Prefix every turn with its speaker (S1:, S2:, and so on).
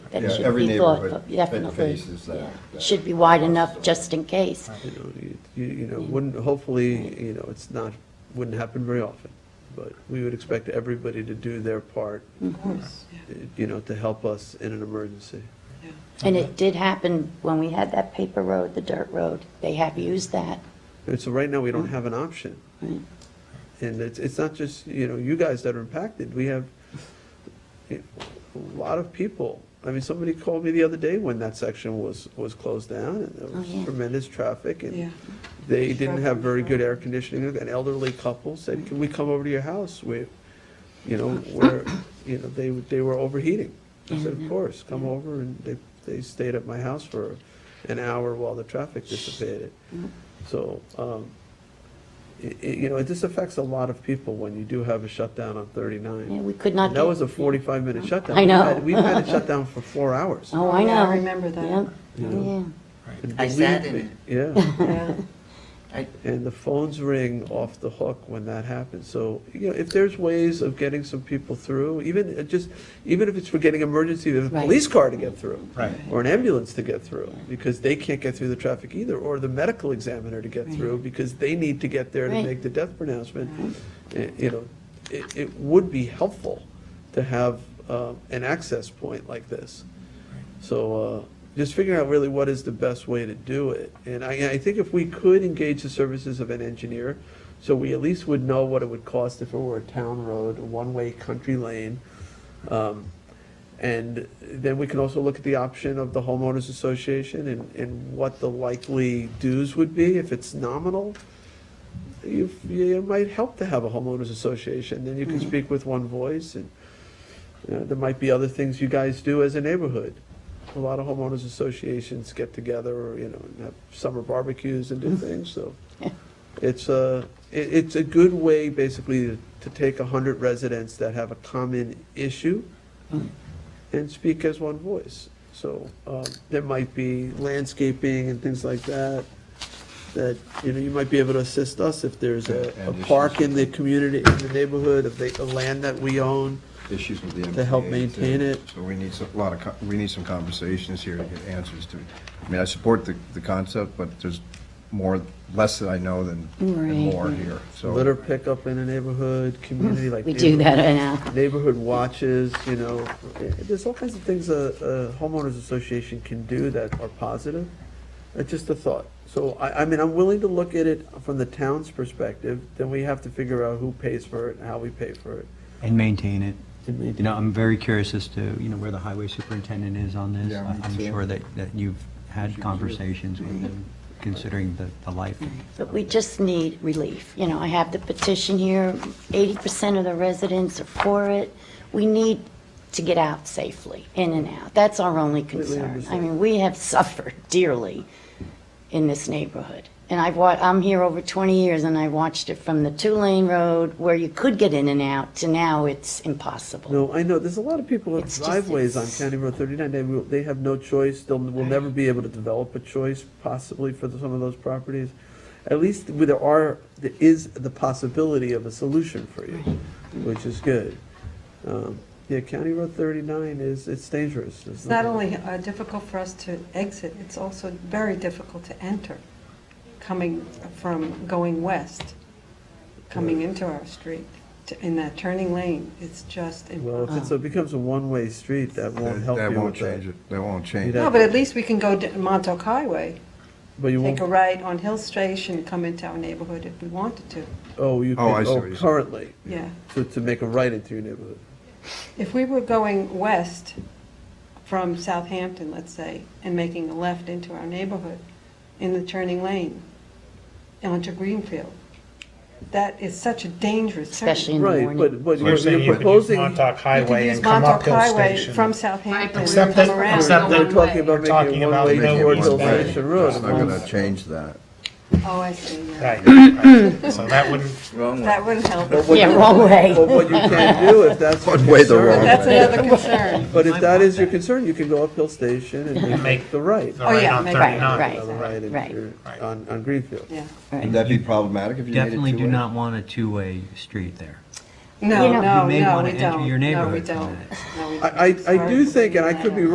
S1: that
S2: Yeah,
S1: should
S2: every
S1: be thought
S2: neighborhood
S1: of, definitely.
S2: faces that-
S1: Yeah.
S2: that
S1: It should be wide enough
S2: possibility.
S1: just in case.
S3: You know, you- you, you know,
S1: Mm.
S3: wouldn't, hopefully, you know, it's not, wouldn't happen very often, but we would expect everybody to do their part,
S2: Mm-hmm.
S3: eh, you know, to help us in an emergency.
S1: And it did happen when we had that paper road, the dirt road, they have used that.
S3: And so right now, we
S1: Mm.
S3: don't have an option.
S1: Right.
S3: And it's, it's not just, you know, you guys that are impacted, we have eh, a lot of people. I mean, somebody called me the other day when that section was, was closed down, and there
S1: Oh, yeah.
S3: was tremendous traffic,
S4: Yeah.
S3: and they didn't have very good air conditioning, an elderly couple said, can we come over to your house? We, you know, where, you know, they, they were overheating. I said, of course, come over, and they, they stayed at my house for an hour while the traffic dissipated. So, um, i- i- you know, this affects a lot of people when you do have a shutdown on
S1: Yeah,
S3: 39.
S1: we could not.
S3: And that
S1: get-
S3: was a 45-minute shutdown.
S1: I
S3: We've
S1: know.
S3: had- We've had it shut down for four hours.
S1: Oh, I
S4: Oh, yeah, I
S1: know.
S4: remember that.
S1: Yep.
S3: You
S1: Yeah,
S3: know? And
S5: I sat
S3: believe
S5: in
S3: me- Yeah,
S4: Yeah. Uh,
S5: I,
S3: and the phones ring off the hook when that happens. So, you know, if there's ways of getting some people through, even, uh, just, even if it's for getting emergency, there's a
S1: Right.
S3: police car to get through.
S2: Right.
S3: Or an ambulance to get through, because they can't get through the traffic either, or the medical examiner to get through, because they need to get there to
S1: Right.
S3: make the death pronouncement. Eh, You know, it, it would be helpful to have um, an access point like this. So uh, just figuring out really what is the best way to do it. And I, I think if we could engage the services of an engineer, so we at least would know what it would cost if it were a town road, a one-way country lane. Um, And then we can also look at the option of the homeowners association and, and what the likely dues would be if it's nominal. You, you might help to have a homeowners association, then you can speak with one voice and you know, there might be other things you guys do as a neighborhood. A lot of homeowners associations get together, or, you know, and have summer barbecues and do things, so. It's a, it, it's a good way, basically, to- to take a hundred residents that have a common issue and speak as one voice. So, um, there might be landscaping and things like that, that, you know, you might be able to assist us if there's a, a
S2: And issues.
S3: park in the community, in the neighborhood, if they, the land that we own.
S2: Issues with the MTA.
S3: To help
S2: too.
S3: maintain it.
S2: So we need some, a lot of, co- we need some conversations here to get answers to. I mean, I support the, the concept, but there's more, less that I know than,
S1: Right.
S2: than more here, so.
S3: litter pickup in a neighborhood, community like.
S1: we do that right now.
S3: Neighborhood watches, you know, Eh, there's all kinds of things a, a homeowners association can do that are positive. It's just a thought. So I, I mean, I'm willing to look at it from the town's perspective, then we have to figure out who pays for it and how we pay for it.
S6: And maintain it.
S3: And maintain-
S6: You know, I'm very curious as to, you know, where the highway superintendent is on this.
S2: Yeah, me
S6: I'm
S2: too.
S6: sure that, that you've had conversations with him, considering the, the life.
S1: But we just need relief. You know, I have the petition here, 80% of the residents are for it. We need to get out safely, in and out. That's our only concern. I
S3: understand.
S1: mean, we have suffered dearly in this neighborhood. And I've wa, I'm here over 20 years, and I watched it from the two-lane road where you could get in and out to now it's impossible.
S3: No, I know, there's a lot of people with
S1: It's just-
S3: driveways on
S1: it's-
S3: County Road 39, they, will- they have no choice, they'll, will never be able to develop a choice possibly for the- some of those properties. At least where there are, there is the possibility of a solution for you, which is good. Um, Yeah, County Road 39 is, it's dangerous.
S4: It's not only uh, difficult for us to exit, it's also very difficult to enter, coming from, going west, coming into our street, to- in that turning lane, it's just
S3: Well, if
S4: impossible.
S3: it's, a- becomes a one-way street, that won't help you
S2: That
S3: with
S2: won't change it, that won't change
S3: You'd
S2: it.
S4: No, but at least we can go to Montauk Highway,
S3: But you
S4: take
S3: won't,
S4: a right on Hill Station, come into our neighborhood if we wanted to,
S3: oh, you
S2: Oh, I
S3: can,
S2: see what
S3: oh,
S2: you're saying.
S3: currently,
S4: yeah.
S3: to, to make a right into your neighborhood.
S4: If we were going west from Southampton, let's say, and making a left into our neighborhood in the turning lane onto Greenfield, that is such a dangerous turn.
S1: Especially in the
S3: Right,
S1: morning.
S3: but, but
S7: So you're
S3: you're
S7: saying
S3: you're
S7: you could use
S3: proposing.
S7: Montauk Highway
S4: You could
S7: and
S4: use
S7: come up
S4: Montauk
S7: Hill
S4: Highway
S7: Station.
S4: from
S8: Right,
S4: Southampton
S8: but
S4: and
S7: Except
S4: come
S7: that-
S4: around.
S7: except
S4: Go
S7: that-
S3: We're
S4: one
S3: talking
S4: way.
S3: about
S7: We're talking
S3: making a
S7: about
S3: one-way
S7: no
S3: towards
S7: words
S3: Hill
S7: way.
S3: Station Road.
S2: It's not gonna change that.
S4: Oh, I see, yeah.
S7: Right, right. So that wouldn't,
S5: wrong way.
S4: That wouldn't help.
S3: But what
S1: Yeah,
S3: you-
S1: wrong way.
S3: But what you can do, if that's your
S2: One way the wrong
S3: concern,
S4: That's another concern.
S3: but if that is your concern, you can go up Hill Station and
S7: And
S3: make
S7: make-
S3: the right.
S7: the
S4: Oh,
S7: right
S4: yeah,
S7: on
S4: maybe.
S1: Right,
S3: the right
S7: 39.
S1: right.
S3: into-
S7: Right.
S3: On, on Greenfield.
S4: Yeah.
S2: Would that be problematic if you made it
S6: Definitely do
S2: two-way?
S6: not want a two-way street there.
S1: You
S4: No,
S1: know-
S4: no,
S6: You may
S4: no,
S6: wanna
S4: we
S6: enter
S4: don't.
S6: your
S4: No, we
S6: neighborhood.
S4: don't. No, we don't.
S3: I, I, I
S4: Sorry
S3: do
S4: for
S3: think, and I
S4: bringing
S3: could
S4: that
S3: be
S4: up.